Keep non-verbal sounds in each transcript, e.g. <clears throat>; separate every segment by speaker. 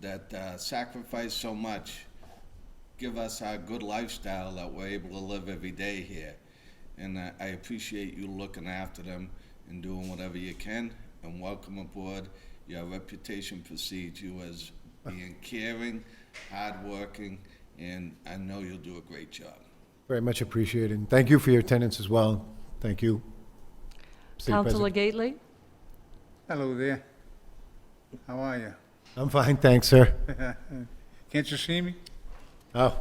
Speaker 1: that uh, sacrificed so much, give us our good lifestyle that we're able to live every day here. And uh, I appreciate you looking after them and doing whatever you can. And welcome aboard. Your reputation precedes you as being caring, hardworking, and I know you'll do a great job.
Speaker 2: Very much appreciated. And thank you for your attendance as well. Thank you. Mr.
Speaker 3: Counselor
Speaker 2: President.
Speaker 3: Gately?
Speaker 4: Hello there. How are you?
Speaker 2: I'm fine, thanks, sir.
Speaker 4: Can't you see me?
Speaker 2: Oh,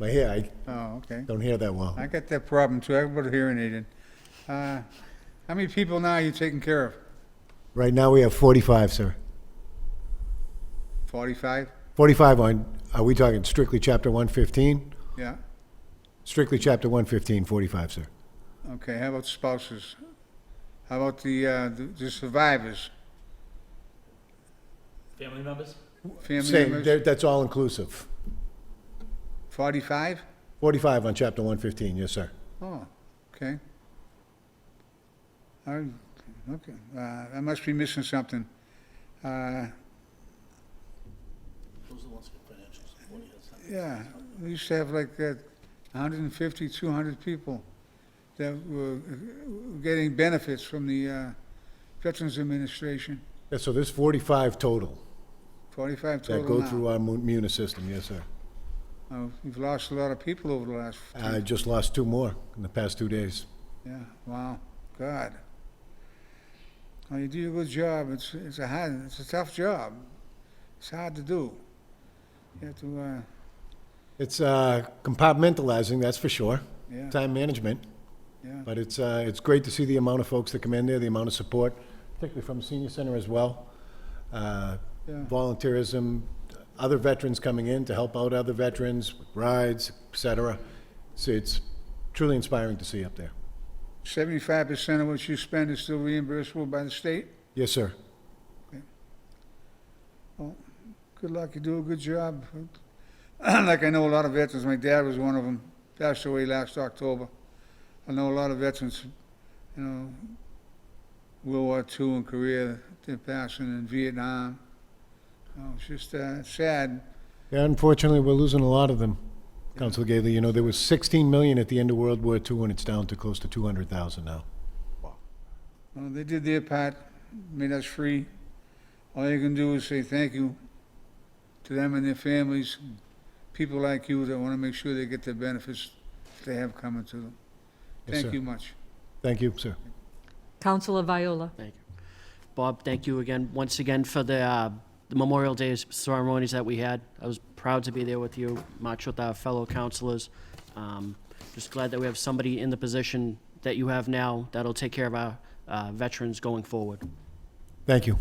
Speaker 2: my hair, I
Speaker 4: Oh, okay.
Speaker 2: don't hear that well.
Speaker 4: I got that problem too. Everybody hearing aided. Uh, how many people now are you taking care of?
Speaker 2: Right now, we have 45, sir.
Speaker 4: Forty-five?
Speaker 2: 45 on, are we talking strictly Chapter 115?
Speaker 4: Yeah.
Speaker 2: Strictly Chapter 115, 45, sir.
Speaker 4: Okay. How about spouses? How about the uh, the, the survivors?
Speaker 5: Family members?
Speaker 4: Family
Speaker 2: Same,
Speaker 4: members?
Speaker 2: that- that's all inclusive.
Speaker 4: Forty-five?
Speaker 2: 45 on Chapter 115, yes, sir.
Speaker 4: Oh, okay. I, okay, uh, I must be missing something. Uh, Yeah, we used to have like uh, 150, 200 people that were uh, getting benefits from the uh, Veterans Administration,
Speaker 2: Yeah, so there's 45 total
Speaker 4: 45 total
Speaker 2: that
Speaker 4: now.
Speaker 2: go through our mu- MUNIS system, yes, sir.
Speaker 4: Uh, We've lost a lot of people over the last, two-
Speaker 2: I just lost two more in the past two days.
Speaker 4: yeah, wow, God. Well, you do a good job, it's, it's a hard, it's a tough job. It's hard to do. You have to, uh,
Speaker 2: It's uh, compartmentalizing, that's for sure.
Speaker 4: yeah,
Speaker 2: Time management.
Speaker 4: yeah,
Speaker 2: But it's, uh, it's great to see the amount of folks that come in there, the amount of support, particularly from the senior center as well. Uh,
Speaker 4: yeah,
Speaker 2: Volunteerism, other veterans coming in to help out other veterans, rides, et cetera. So it's truly inspiring to see up there.
Speaker 4: Seventy-five percent of what you spend is still reimbursable by the state?
Speaker 2: Yes, sir.
Speaker 4: Good luck, you do a good job. <clears throat> Like I know a lot of veterans, my dad was one of them, passed away last October. I know a lot of veterans, you know, World War II and Korea, they're passing in Vietnam. You know, It's just uh, sad,
Speaker 2: Yeah, unfortunately, we're losing a lot of them, Council Gailey. You know, there was 16 million at the end of World War II, and it's down to close to 200,000 now.
Speaker 4: Well, they did their part, made us free. All you can do is say thank you to them and their families, people like you that want to make sure they get the benefits they have coming to them.
Speaker 2: Yes,
Speaker 4: Thank
Speaker 2: sir.
Speaker 4: you much.
Speaker 2: Thank you, sir.
Speaker 3: Counselor Viola?
Speaker 6: Thank you. Bob, thank you again, once again, for the uh, the Memorial Day ceremonies that we had. I was proud to be there with you, much with our fellow counselors. Um, Just glad that we have somebody in the position that you have now that'll take care of our uh, veterans going forward.
Speaker 2: Thank you.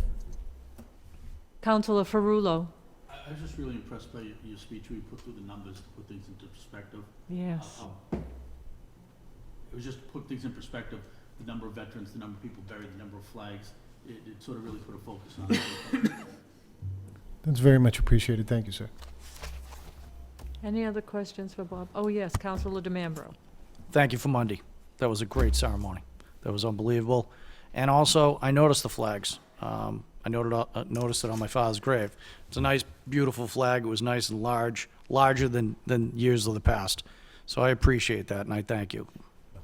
Speaker 3: Counselor Ferrulo?
Speaker 7: I I was just really impressed by your- your speech, where you put through the numbers to put things into perspective.
Speaker 3: Yes.
Speaker 7: Um, It was just to put things in perspective, the number of veterans, the number of people buried, the number of flags. It, it sort of really put a focus on it.
Speaker 2: That's very much appreciated. Thank you, sir.
Speaker 3: Any other questions for Bob? Oh, yes, Counselor DeMambro.
Speaker 8: Thank you for Monday. That was a great ceremony. That was unbelievable. And also, I noticed the flags. Um, I noted, uh, noticed it on my father's grave. It's a nice, beautiful flag. It was nice and large, larger than, than years of the past. So I appreciate that, and I thank you.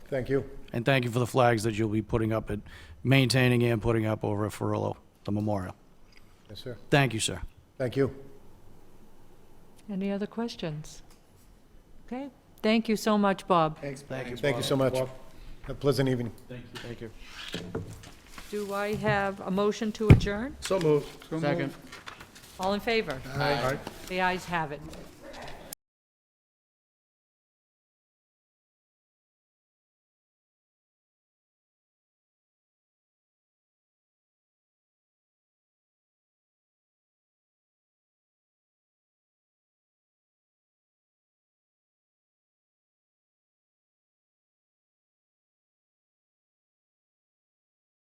Speaker 2: Thank you.
Speaker 8: And thank you for the flags that you'll be putting up at, maintaining and putting up over at Farillo, the memorial.
Speaker 2: Yes, sir.
Speaker 8: Thank you, sir.
Speaker 2: Thank you.
Speaker 3: Any other questions? Okay, thank you so much, Bob.
Speaker 2: Thank you so much. Have a pleasant evening.
Speaker 7: Thank you.
Speaker 6: Thank you.
Speaker 3: Do I have a motion to adjourn?
Speaker 4: So
Speaker 6: Second.
Speaker 4: moved.
Speaker 3: All in favor? Aye. The ayes have it.